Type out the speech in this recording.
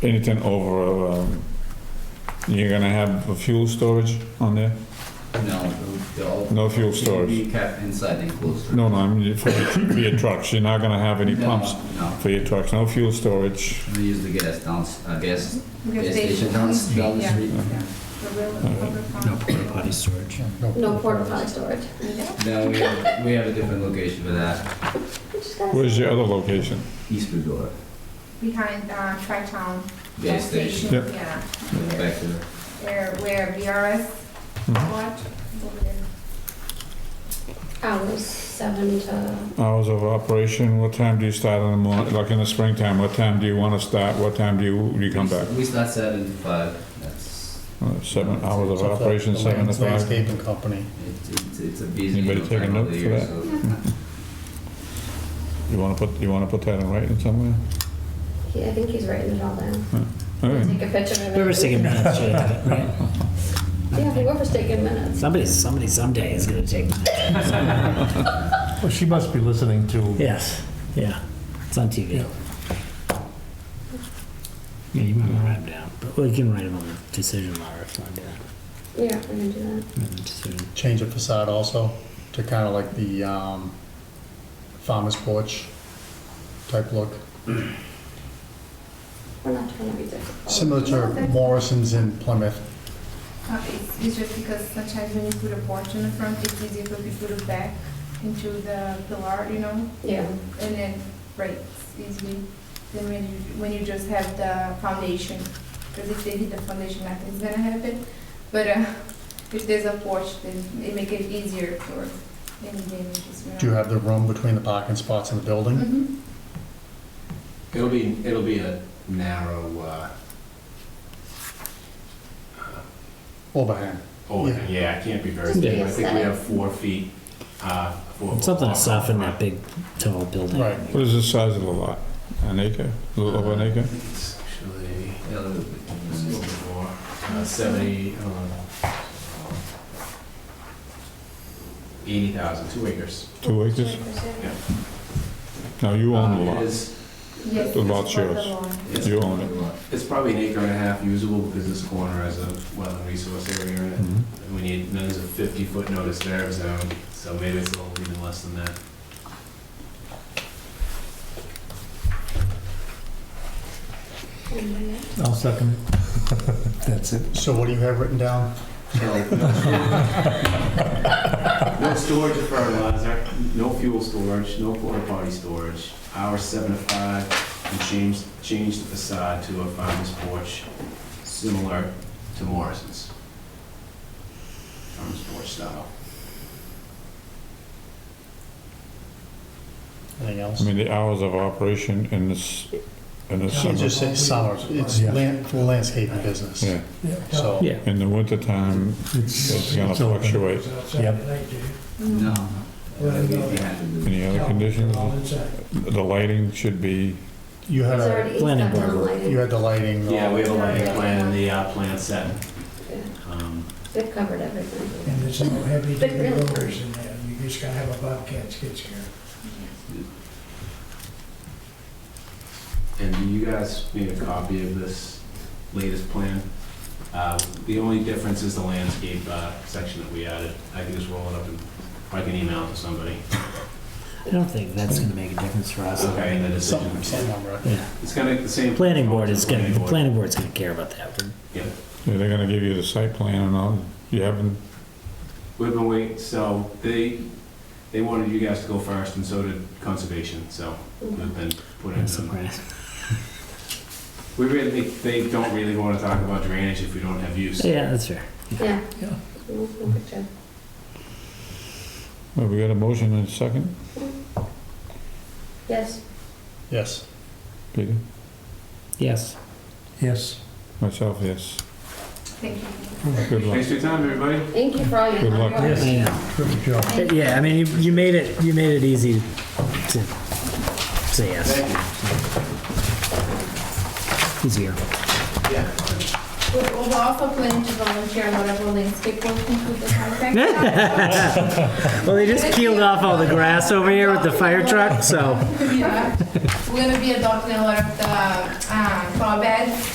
anything over, um, you're gonna have a fuel storage on there? No, they'll. No fuel storage. Be kept inside the enclosed. No, no, I mean, for your- for your trucks, you're not gonna have any No, pumps No, for your trucks, no fuel storage. we use the gas down, uh, gas, Because gas they- station down, down the Yeah. street. Yeah. The real- public No farm. porta potty storage. No porta potty storage. Okay. No, we have, we have a different location for that, We just gotta- Where's your other location? East Bridgewater, Behind uh, Tri-Town. gas station, Yep. Yeah, back to the, where, where VRS Mhm. watch, over there. Hours seven to, Hours of operation, what time do you start in the morning, like in the springtime, what time do you wanna start, what time do you, do you come back? we start seven to five, that's, Uh, Seven hours of operation, seven to five? Landscaping company. it's, it's- it's a busy. Anybody time take a of note the for year, that? so- You wanna put, you wanna put that in writing somewhere? he- I think he's writing it all down. All right. Take a picture of it. Hmm. Whoever's taking minutes should have it, right? Yeah, whoever's taking minutes. Somebody, somebody someday is gonna take minutes. Well, she must be listening to, Yes, yeah, it's on TV. Yeah, you might wanna write them down, but we can write them on the decision letter if you wanna do that. Yeah, we're gonna do that. Write the decision. change the facade also to kind of like the um, farmer's porch type look, We're not trying to be difficult. similar to Morrison's in Plymouth. Uh, It's it's just because sometimes when you put a porch in the front, it's easier for people to back into the pillar, you know, Yeah, and then breaks easily than when you, when you just have the foundation. Because if they hit the foundation, nothing's gonna happen. But uh, if there's a porch, then it make it easier for any damages, you know. Do you have the room between the parking spots in the building? Mhm. It'll be, it'll be a narrow, uh, Overhang. Oh, Yeah. yeah, it can't be very Just big. be I think we aesthetic. have four feet, uh, four. Something to soften that big, tall building. Right. What is the size of the lot? An acre, a little over an acre? It's actually, yeah, a little bit. it's a little bit more, uh, seventy, uh, I don't know. Eighty thousand, two acres. Two acres? No, you own the Uh, It lot. is, Yes. The lot's it's for the yours. lawn. it's- You own it. it's probably an acre and a half usable because this corner has a wetland resource area in it. Mhm. And We need, there's a fifty-foot notice there of zone, so maybe it's a little even less than that. and then- I'll second it. That's it. So what do you have written down? No storage of fertilizer, no fuel storage, no porta potty storage, hours seven to five, and change, change the facade to a farmer's porch similar to Morrison's. Farmer's porch style. Anything I else? mean, the hours of operation in this, in the You summer, just say summer, it's land, for landscaping business, yeah. so. Yeah. In the wintertime, it's gonna fluctuate. Yep. No. Uh, we- we had to do- Any other conditions? The lighting should be, You had, It's a- already, it's Planning got down board. you lighting. had the lighting. all- Yeah, we have a lighting plan and the uh, plan set. Yeah, Um, They've covered everything. And there's no heavy But duty really- loaders in there, you just gotta have a Bobcat skid steer. And you guys made a copy of this latest plan. Uh, The only difference is the landscape uh, section that we added. I can just roll it up and, or I can email it to somebody. I don't think that's gonna make a difference for us. Okay, and the Some, some decision. number. Yeah, It's kind of the same. planning board is gonna, the Planning board. planning board's gonna care about that. We're- Yeah. they're gonna give you the site plan and all, you haven't, We've been waiting, so they, they wanted you guys to go first, and so did conservation, so we've been put we're in them. surprised. We really, they don't really want to talk about drainage if we don't have use. Yeah, that's fair. Yeah. Mm-hmm. Yeah. No, no picture. well, we got a motion and a second, Yes, Yes. Peter? Yes. Yes. Myself, yes. Thank you. Good luck. Thanks for your time, everybody. thank you for all your. Good luck. hard work. I know. Good job. Yeah, I mean, you, you made it, you made it easy to say yes, Thank you. easier. We're we're also planning to volunteer on whatever landscape work include the contract. Well, they just peeled off all the grass over here with the fire truck, so. Yeah. We're gonna be adopting a lot of the, uh, flower beds